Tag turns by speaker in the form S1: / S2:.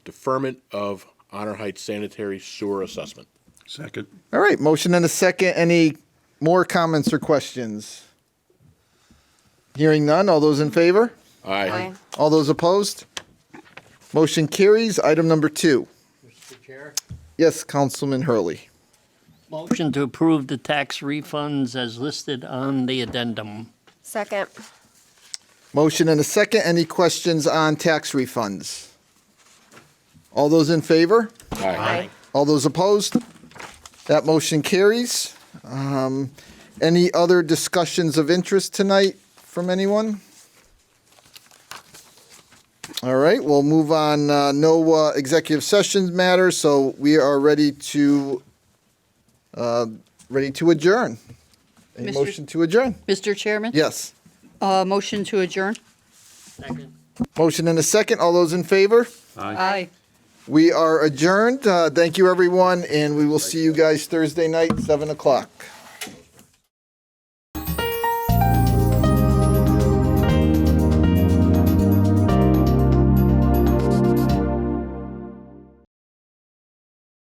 S1: deferment of Honor Heights sanitary sewer assessment.
S2: Second.
S3: All right, motion and a second. Any more comments or questions? Hearing none, all those in favor?
S1: Aye.
S3: All those opposed? Motion carries. Item number two.
S4: Mr. Chair.
S3: Yes, Councilman Hurley.
S4: Motion to approve the tax refunds as listed on the addendum.
S5: Second.
S3: Motion and a second. Any questions on tax refunds? All those in favor?
S5: Aye.
S3: All those opposed? That motion carries. Um, Any other discussions of interest tonight from anyone? All right, we'll move on. uh, No uh, executive sessions matter, so we are ready to, uh, ready to adjourn. A
S6: Mr.
S3: motion to adjourn?
S6: Mr. Chairman?
S3: Yes.
S6: Uh, motion to adjourn?
S4: Second.
S3: Motion and a second. All those in favor?
S6: Aye.
S3: We are adjourned. Uh, Thank you, everyone, and we will see you guys Thursday night, 7 o'clock.